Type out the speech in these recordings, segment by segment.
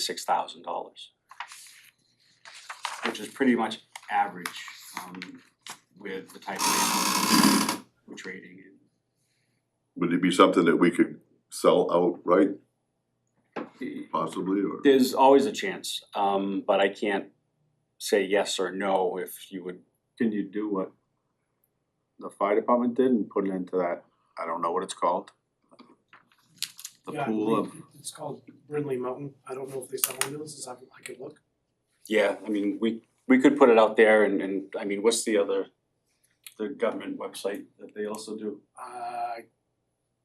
six thousand dollars. Which is pretty much average um with the type of animals we're trading in. Would it be something that we could sell outright Y- possibly, or? There's always a chance, um but I can't say yes or no if you would, Can you do what the fire department did and put it into that, I don't know what it's called? The Yeah, I pool of, believe It's called Brindley Mountain, I don't know if they sell ambulances, I I could look. yeah, I mean, we we could put it out there and and I mean, what's the other the government website that they also do? Uh,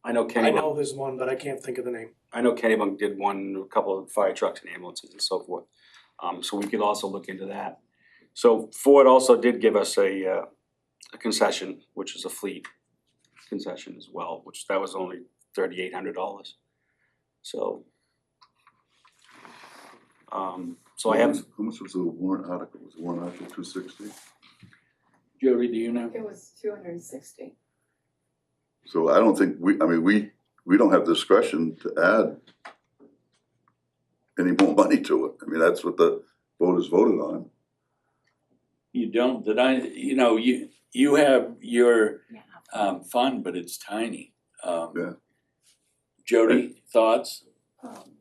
I know I Kennybunk, know there's one, but I can't think of the name. I know Kennybunk did one, a couple of fire trucks and ambulances and so forth. Um so we could also look into that. So Ford also did give us a uh a concession, which is a fleet concession as well, which that was only thirty eight hundred dollars. So um so I have, How much was the warrant article, was the warrant article two sixty? Jody, do you know? It was two hundred and sixty. So I don't think we, I mean, we, we don't have discretion to add any more money to it, I mean, that's what the voters voted on. You don't, that I, you know, you, you have your Yeah. um fund, but it's tiny. Um, Yeah. Jody, thoughts? Um,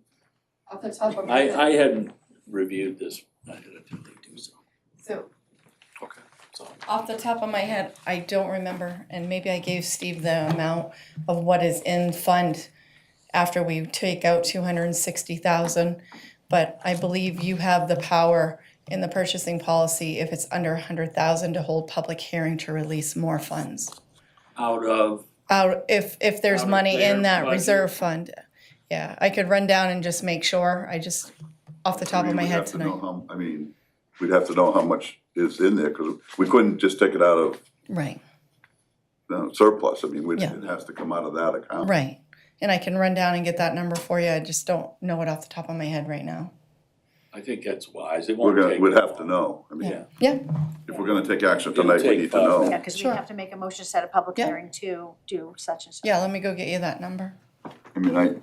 Off the top of my I head. I hadn't reviewed this. I had to do so. So So, Off the top of my head, I don't remember, and maybe I gave Steve the amount of what is in fund after we take out two hundred and sixty thousand. But I believe you have the power in the purchasing policy, if it's under a hundred thousand, to hold public hearing to release more funds. Out of, Out, if, if there's Out of money their in that budget. reserve fund, yeah, I could run down and just make sure, I just, off the top I of mean, my we'd head have to know tonight, how- I mean, we'd have to know how much is in there, cause we couldn't just take it out of right. uh, surplus, I mean, we'd- Yeah. it has to come out of that account. Right. And I can run down and get that number for you. I just don't know it off the top of my head right now. I think that's wise. It We're won't gonna, take. we'd that have to long. know, I mean, Yeah. Yeah, if we're gonna take action It'll tonight, we take need to five know. Yeah, cause we Sure. have to make a motion to set a public Yeah. hearing to do such and such. yeah, let me go get you that number. I mean, I,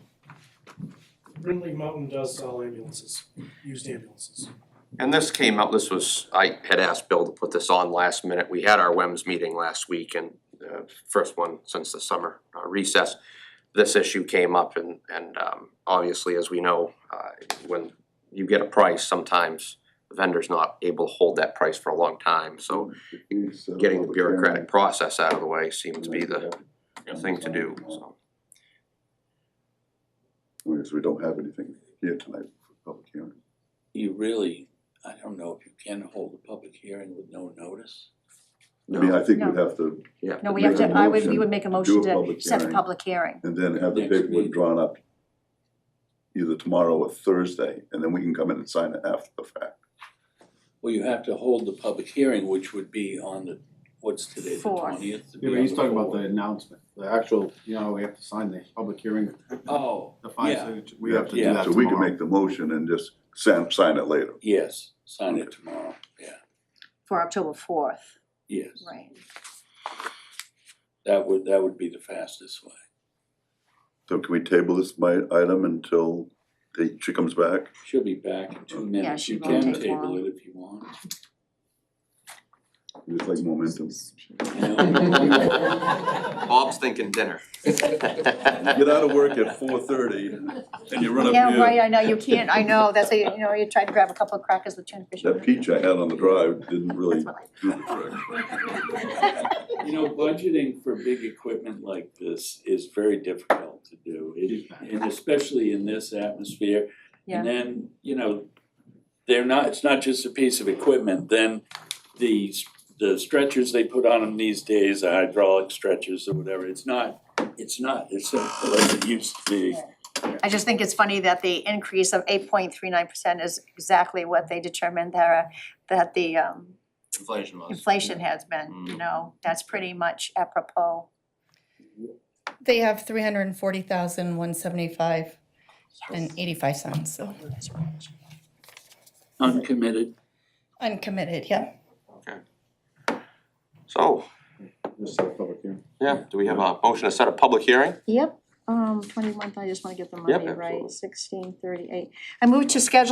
Brindley Mountain does sell ambulances, used ambulances. And this came out, this was, I had asked Bill to put this on last minute. We had our WEMS meeting last week and uh first one since the summer uh, recess. This issue came up and and um obviously, as we know, uh when you get a price, sometimes the vendor's not able to hold that price for a long time, so getting the bureaucratic process out of the way seemed to be the thing to do, so. Because we don't have anything here tonight for public hearing. You really, I don't know if you can hold a public hearing with no notice. I mean, I think No. we'd have to, Yeah. No, we Make have to, a I would, we motion would make a do a motion to public set a hearing. public hearing. and then have the Next paperwork meeting. drawn up either tomorrow or Thursday, and then we can come in and sign it after the fact. Well, you have to hold the public hearing, which would be on the, what's today, the Fourth. twentieth? yeah, but he's talking about the announcement, the actual, you know, we have to sign the public hearing, Oh, the five Yeah. signature, we have to do Yeah. that So we can tomorrow. make the motion and just sign, sign it later. yes, sign it tomorrow, yeah, For October fourth, yes. right. That would, that would be the fastest way. So can we table this my item until the- she comes back? She'll be back in two Yeah, minutes. she You won't can take table long. it if you want. Just like momentum. you know? Bob's thinking dinner. Get out of work at four thirty and you run up Yeah, right, here. I know, you can't, I know, that's how, you you know, you try to grab a couple of crackers with tuna fish. in That it. peach I had on the drive didn't really That's what do I- the trick. You know, budgeting for big equipment like this is very difficult to do. It- And especially in this atmosphere. Yeah. And then, you know, they're not, it's not just a piece of equipment, then these, the stretchers they put on them these days, the hydraulic stretchers or whatever, it's not, it's not, it's simple as it used to be. I just think it's funny that the increase of eight point three nine percent is exactly what they determined there, that the um Inflation was. inflation has been, Mm. you know, that's pretty much apropos. They have three hundred and forty thousand, one seventy-five and eighty-five cents, so Uncommitted, uncommitted, yeah. So, Just set a public hearing. yeah, do we have a motion to set a public hearing? Yep, um, twenty-one, I just wanna get the Yep, money right, absolutely. sixteen thirty-eight. I moved to schedule